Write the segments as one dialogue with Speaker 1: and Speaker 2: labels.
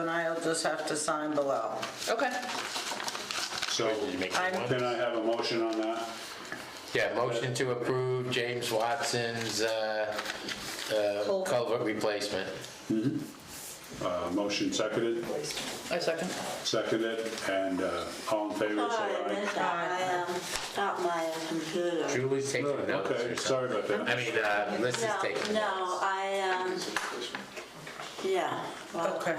Speaker 1: they'll just have to sign below.
Speaker 2: Okay.
Speaker 3: So
Speaker 4: Did you make
Speaker 1: I'm-
Speaker 4: one?
Speaker 3: can I have a motion on that?
Speaker 4: Yeah, motion to approve James Watson's uh, uh,
Speaker 2: Culvert.
Speaker 4: culvert replacement.
Speaker 3: Uh, Motion seconded,
Speaker 2: I second.
Speaker 3: seconded, and uh, all in favor,
Speaker 5: Sorry, Oh, I
Speaker 3: say
Speaker 5: missed that. I um, got my computer.
Speaker 4: Julie's
Speaker 3: aye.
Speaker 4: taking notes
Speaker 3: Okay,
Speaker 4: or something.
Speaker 3: sorry about that.
Speaker 4: I mean, uh, Melissa's
Speaker 5: No,
Speaker 4: taking
Speaker 5: no,
Speaker 4: notes.
Speaker 5: I, um, yeah, well,
Speaker 1: Okay.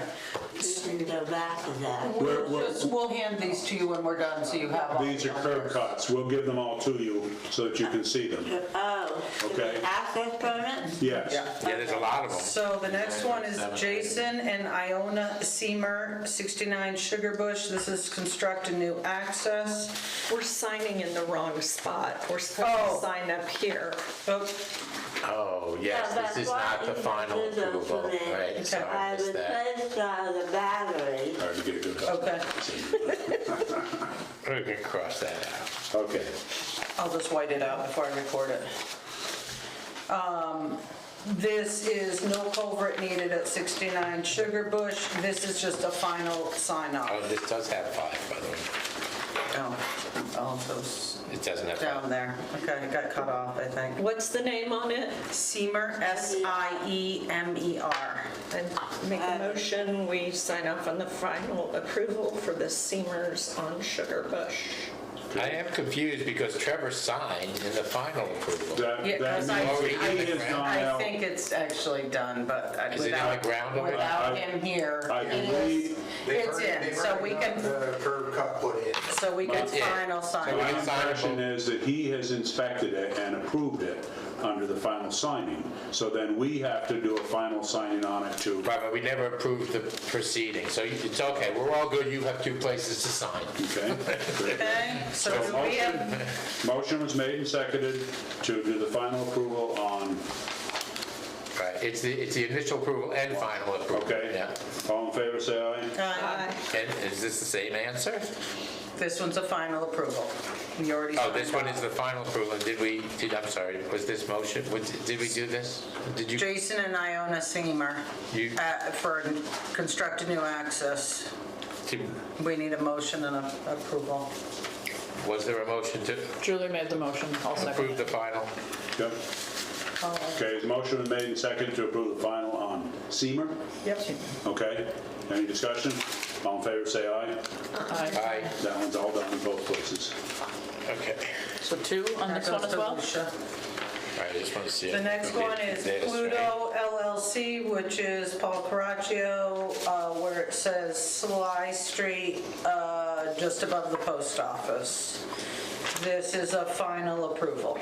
Speaker 5: we can go back to that.
Speaker 3: We're- we're-
Speaker 1: Just- We'll hand these to you when we're done, so you have all.
Speaker 3: These are curb cuts, we'll give them all to you so that you can see them,
Speaker 5: Oh,
Speaker 3: okay?
Speaker 5: access permit?
Speaker 3: Yes,
Speaker 1: Yeah.
Speaker 4: Yeah, there's a lot of them.
Speaker 1: So the next one is
Speaker 4: Seven.
Speaker 1: Jason and Iona Seamer, 69 Sugar Bush. This is construct a new access.
Speaker 6: We're signing in the wrong spot. We're supposed
Speaker 1: Oh.
Speaker 6: to sign up here.
Speaker 1: Oh,
Speaker 4: Oh, yes,
Speaker 5: Yeah, that's
Speaker 4: this is
Speaker 5: why
Speaker 4: not the
Speaker 5: you
Speaker 4: final
Speaker 5: did them for
Speaker 4: approval,
Speaker 5: me.
Speaker 4: right? Sorry, I
Speaker 5: I
Speaker 4: missed that.
Speaker 5: replaced uh, the battery.
Speaker 3: hard to get a good cut.
Speaker 1: Okay,
Speaker 4: We're gonna cross that out.
Speaker 3: Okay,
Speaker 1: I'll just white it out before I record it. Um, This is no culvert needed at 69 Sugar Bush. This is just a final sign
Speaker 4: Oh,
Speaker 1: off.
Speaker 4: this does have five, by the way.
Speaker 1: Oh, all those
Speaker 4: It doesn't have five.
Speaker 1: down there. Okay, it got cut off, I think.
Speaker 6: What's the name on it?
Speaker 1: Seamer, E S-I-E-M-E-R.
Speaker 6: I make a motion, we sign off on the final approval for the Seamers on Sugar Bush.
Speaker 4: I am confused because Trevor signed in the final approval.
Speaker 3: that,
Speaker 1: Yeah, 'cause I-
Speaker 3: that means
Speaker 4: I-
Speaker 3: he is gone
Speaker 1: I
Speaker 3: out.
Speaker 1: think it's actually done, but I-
Speaker 4: Is it in the
Speaker 1: without,
Speaker 4: ground already?
Speaker 1: without
Speaker 3: I-
Speaker 1: him here.
Speaker 3: I
Speaker 1: it
Speaker 3: believe-
Speaker 1: is-
Speaker 7: They've
Speaker 1: It's
Speaker 7: already-
Speaker 1: in,
Speaker 7: they've
Speaker 1: so we
Speaker 7: already got
Speaker 1: can,
Speaker 7: The curb cut put in.
Speaker 1: so we can
Speaker 4: It's in.
Speaker 1: final
Speaker 3: So
Speaker 1: sign
Speaker 3: My
Speaker 1: it.
Speaker 3: impression is that he has inspected it and approved it under the final signing. So then we have to do a final signing on it too.
Speaker 4: Right, but we never approved the proceeding, so you- it's okay, we're all good, you have two places to sign.
Speaker 3: Okay?
Speaker 1: Okay, so
Speaker 3: So
Speaker 1: do we have,
Speaker 3: motion- Motion was made and seconded to do the final approval on,
Speaker 4: Right, it's the, it's the initial approval and final approval.
Speaker 3: okay?
Speaker 4: Yeah.
Speaker 3: All in favor, say
Speaker 1: uh,
Speaker 3: aye.
Speaker 6: Aye.
Speaker 4: And is this the same answer?
Speaker 1: this one's a final approval. You already.
Speaker 4: Oh, this
Speaker 1: signed
Speaker 4: one is
Speaker 1: off.
Speaker 4: the final approval, and did we, did, I'm sorry, was this motion, was- did we do this? Did you,
Speaker 1: Jason and Iona Seamer,
Speaker 4: You-
Speaker 1: uh, for construct a new access.
Speaker 4: did-
Speaker 1: We need a motion and a approval.
Speaker 4: was there a motion to
Speaker 2: Julie made the motion. I'll second.
Speaker 4: approve the final?
Speaker 3: Yep. Okay, the motion was made and seconded to approve the final on Seamer,
Speaker 1: Yep.
Speaker 3: okay? Any discussion? All in favor, say aye.
Speaker 2: Aye.
Speaker 4: Aye,
Speaker 3: That one's all done in both places.
Speaker 4: okay.
Speaker 2: So two on this one as well?
Speaker 4: All right, I just want to see.
Speaker 1: The
Speaker 4: if
Speaker 1: next
Speaker 4: we
Speaker 1: one
Speaker 4: did
Speaker 1: is
Speaker 4: this, right?
Speaker 1: Pluto LLC, which is Paul Caraccio, uh, where it says Sly Street, uh, just above the post office. This is a final approval.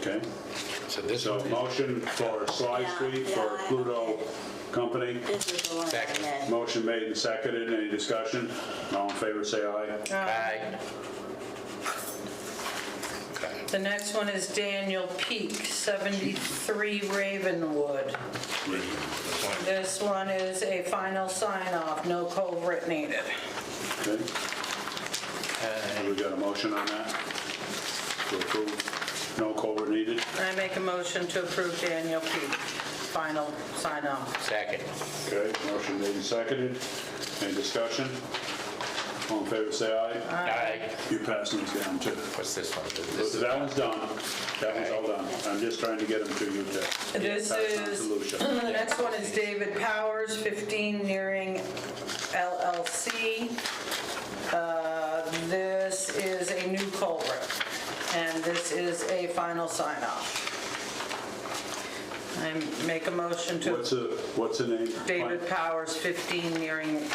Speaker 3: Okay?
Speaker 4: So this
Speaker 3: So
Speaker 4: one, is-
Speaker 3: motion for Sly
Speaker 5: Yeah,
Speaker 3: Street for
Speaker 5: yeah, I-
Speaker 3: Pluto Company.
Speaker 5: This is the one I
Speaker 4: Second.
Speaker 5: missed.
Speaker 3: Motion made and seconded. Any discussion? All in favor, say aye.
Speaker 4: aye. Okay.
Speaker 1: The next one is Daniel Peak, 73 Ravenwood. This one is a final sign-off, no culvert needed.
Speaker 3: Okay. Have we got a motion on that? To approve, no culvert needed.
Speaker 1: I make a motion to approve Daniel Peak, final sign-off.
Speaker 4: Second.
Speaker 3: Okay, motion made and seconded. Any discussion? All in favor, say aye.
Speaker 4: Aye.
Speaker 3: You're passing these down too.
Speaker 4: What's this one? This
Speaker 3: So
Speaker 4: is
Speaker 3: That one's done. That one's all done. I'm just trying to get them to you to.
Speaker 1: This
Speaker 3: pass on to
Speaker 1: is-
Speaker 3: Lucia.
Speaker 1: The next one is David Powers, 15 Nearing LLC. Uh, This is a new culvert, and this is a final sign-off. I make a motion to
Speaker 3: What's the, what's the name?
Speaker 1: David Powers, 15 Nearing
Speaker 3: Okay,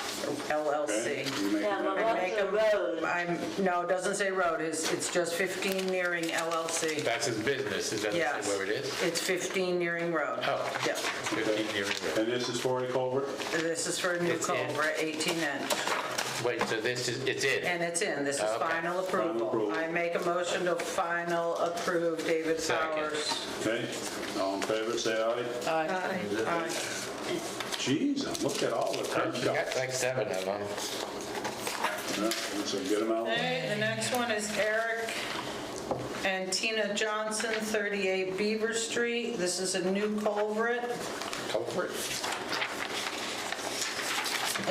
Speaker 1: LLC.
Speaker 3: you make
Speaker 5: Yeah,
Speaker 3: a
Speaker 5: but
Speaker 3: motion.
Speaker 5: what's the road?
Speaker 1: I'm, no, it doesn't say road, it's, it's just 15 Nearing LLC.
Speaker 4: That's his business, is that
Speaker 1: Yes.
Speaker 4: where it is?
Speaker 1: It's 15 Nearing Road.
Speaker 4: Oh.
Speaker 1: Yeah.
Speaker 4: 15 years ago.
Speaker 3: And this is for a culvert?
Speaker 1: This is for a new
Speaker 4: It's in.
Speaker 1: culvert, 18 inch.
Speaker 4: Wait, so this is, it's in?
Speaker 1: And it's in, this is
Speaker 4: Okay.
Speaker 1: final approval.
Speaker 3: approval.
Speaker 1: I make a motion to final approve David
Speaker 4: Second.
Speaker 1: Powers.
Speaker 3: Okay, all in favor, say aye.
Speaker 2: Aye.
Speaker 1: Aye.
Speaker 3: Jeez, look at all the curb
Speaker 4: You got
Speaker 3: cuts.
Speaker 4: like seven of them.
Speaker 3: Yeah, So get them out.
Speaker 1: Okay, the next one is Eric and Tina Johnson, 38 Beaver Street. This is a new culvert.
Speaker 4: Culvert?